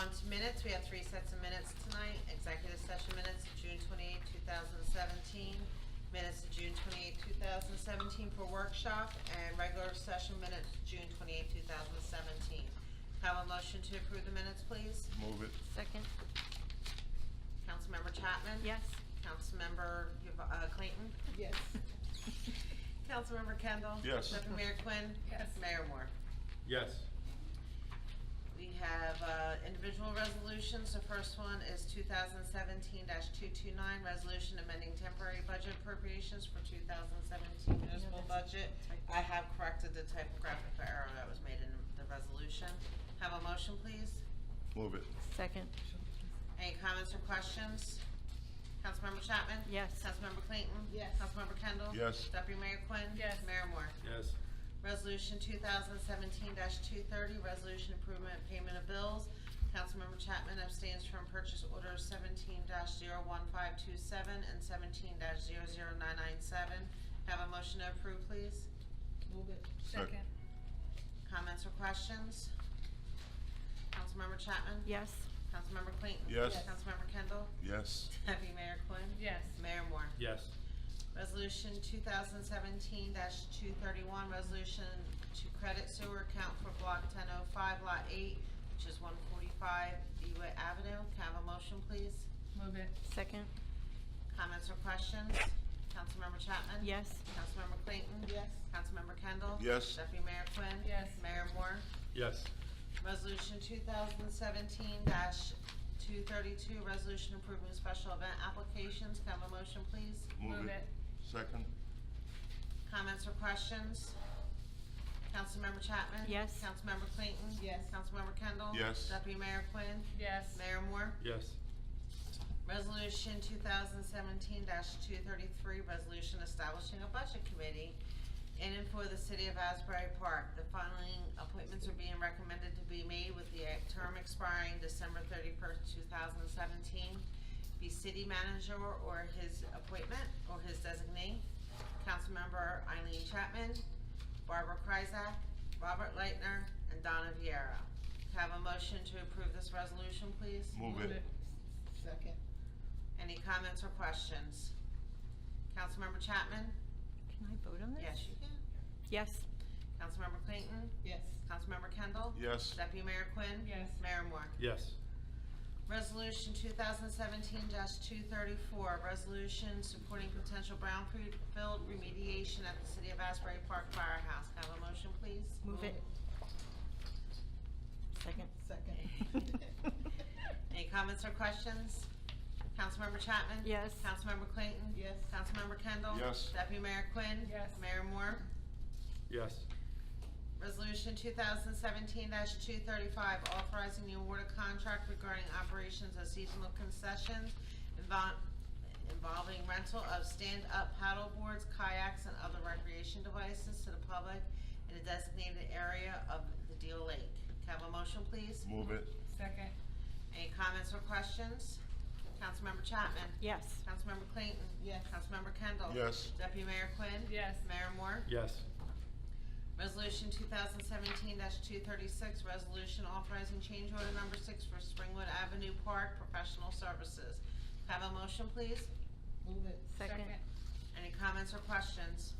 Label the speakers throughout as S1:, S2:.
S1: on to minutes, we have three sets of minutes tonight, executive session minutes, of June twenty eighth, two thousand seventeen, minutes of June twenty eighth, two thousand seventeen for workshop, and regular session minutes, June twenty eighth, two thousand seventeen. Have a motion to approve the minutes, please?
S2: Move it.
S3: Second,
S1: Councilmember Chapman?
S3: yes.
S1: Councilmember Yv- uh, Clayton?
S4: Yes.
S1: Councilmember Kendall?
S2: Yes.
S1: Deputy Mayor Quinn?
S4: Yes.
S1: Mayor Moore?
S2: Yes.
S1: We have uh, individual resolutions. The first one is 2017-229, resolution amending temporary budget appropriations for 2017 municipal budget. I have corrected the typographic error that was made in the resolution. Have a motion, please?
S2: Move it.
S3: Second,
S1: Any comments or questions? Councilmember Chapman?
S3: Yes.
S1: Councilmember Clayton?
S4: Yes.
S1: Councilmember Kendall?
S2: Yes.
S1: Deputy Mayor Quinn?
S4: Yes.
S1: Mayor Moore?
S2: Yes.
S1: Resolution 2017-230, resolution improvement payment of bills. Councilmember Chapman abstains from purchase orders 17-01527 and 17-00997. Have a motion to approve, please.
S4: Move it.
S2: Second.
S1: Comments or questions? Councilmember Chapman?
S3: yes.
S1: Councilmember Clayton?
S2: Yes.
S4: Yes.
S1: Councilmember Kendall?
S2: Yes.
S1: Deputy Mayor Quinn?
S4: Yes.
S1: Mayor Moore?
S2: Yes.
S1: Resolution 2017-231, resolution to credit sewer account for Block 1005, Lot 8, which is 145 Dewitt Avenue. Can I have a motion, please?
S4: Move it.
S3: Second,
S1: Comments or questions? Councilmember Chapman?
S3: yes.
S1: Councilmember Clayton?
S4: Yes.
S1: Councilmember Kendall?
S2: Yes.
S1: Deputy Mayor Quinn?
S4: Yes.
S1: Mayor Moore?
S2: Yes.
S1: Resolution 2017-232, resolution approving special event applications. Can I have a motion, please?
S2: Move it. Second.
S1: Comments or questions? Councilmember Chapman?
S3: Yes.
S1: Councilmember Clayton?
S4: Yes.
S1: Councilmember Kendall?
S2: Yes.
S1: Deputy Mayor Quinn?
S4: Yes.
S1: Mayor Moore?
S2: Yes.
S1: Resolution two thousand seventeen two thirty-three, resolution establishing a budget committee in and for the city of Asbury Park. The following appointments are being recommended to be made with the term expiring December thirty-first, two thousand seventeen. Be city manager or his appointment, or his designee, Councilmember Eileen Chapman, Barbara Kryzak, Robert Leitner, and Donna Viera. Have a motion to approve this resolution, please?
S2: Move it.
S4: Second.
S1: Any comments or questions? Councilmember Chapman?
S3: Can I vote on this?
S1: Yes, you can.
S3: Yes,
S1: Councilmember Clayton?
S4: Yes.
S1: Councilmember Kendall?
S2: Yes.
S1: Deputy Mayor Quinn?
S4: Yes.
S1: Mayor Moore?
S2: Yes.
S1: Resolution two thousand seventeen two thirty-four, resolution supporting potential brownfield remediation at the City of Asbury Park Firehouse. Can I Have a motion, please?
S3: move it. Second,
S4: Second.
S1: Any comments or questions? Councilmember Chapman?
S3: Yes.
S1: Councilmember Clayton?
S4: Yes.
S1: Councilmember Kendall?
S2: Yes.
S1: Deputy Mayor Quinn?
S4: Yes.
S1: Mayor Moore?
S2: Yes.
S1: Resolution two thousand seventeen two thirty-five, authorizing the award of contract regarding operations of seasonal concessions invol- involving rental of stand-up paddle boards, kayaks, and other recreation devices to the public in a designated area of the Deal Lake. Can I have a motion, please?
S2: Move it.
S4: Second.
S1: Any comments or questions? Councilmember Chapman?
S3: yes.
S1: Councilmember Clayton?
S4: Yes.
S1: Councilmember Kendall?
S2: Yes.
S1: Deputy Mayor Quinn?
S4: Yes.
S1: Mayor Moore?
S2: Yes.
S1: Resolution two thousand seventeen two thirty-six, resolution authorizing change order number six for Springwood Avenue Park Professional Services. Have a motion, please?
S4: Move it.
S3: Second.
S1: Any comments or questions?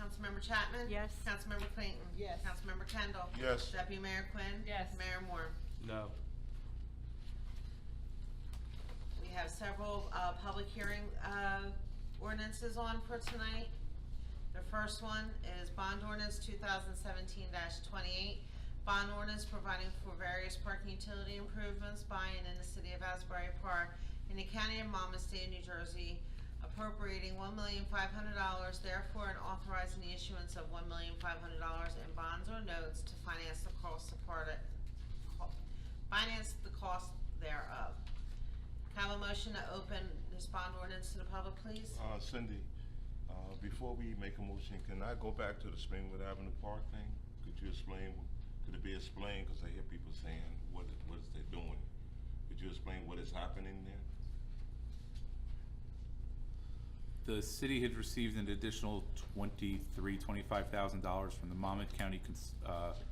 S1: Councilmember Chapman?
S3: Yes.
S1: Councilmember Clayton?
S4: Yes.
S1: Councilmember Kendall?
S2: Yes.
S1: Deputy Mayor Quinn?
S4: Yes.
S1: Mayor Moore?
S2: No.
S1: We have several uh, public hearing uh, ordinances on for tonight. The first one is bond ordinance 2017-28, bond ordinance providing for various parking utility improvements by and in the city of Asbury Park in the county of Monmouth, state of New Jersey, appropriating $1,500 therefore and authorizing the issuance of $1,500 in bonds or notes to finance the cost supported, co- finance the cost thereof. Can I Have a motion to open this bond ordinance to the public, please?
S2: Uh, Cindy, uh, before we make a motion, can I go back to the Springwood Avenue Park thing? Could you explain, could it be explained, because I hear people saying, what, what is they doing? Could you explain what is happening there?
S5: The city had received an additional twenty-three, twenty-five thousand dollars from the Monmouth County Cons- uh,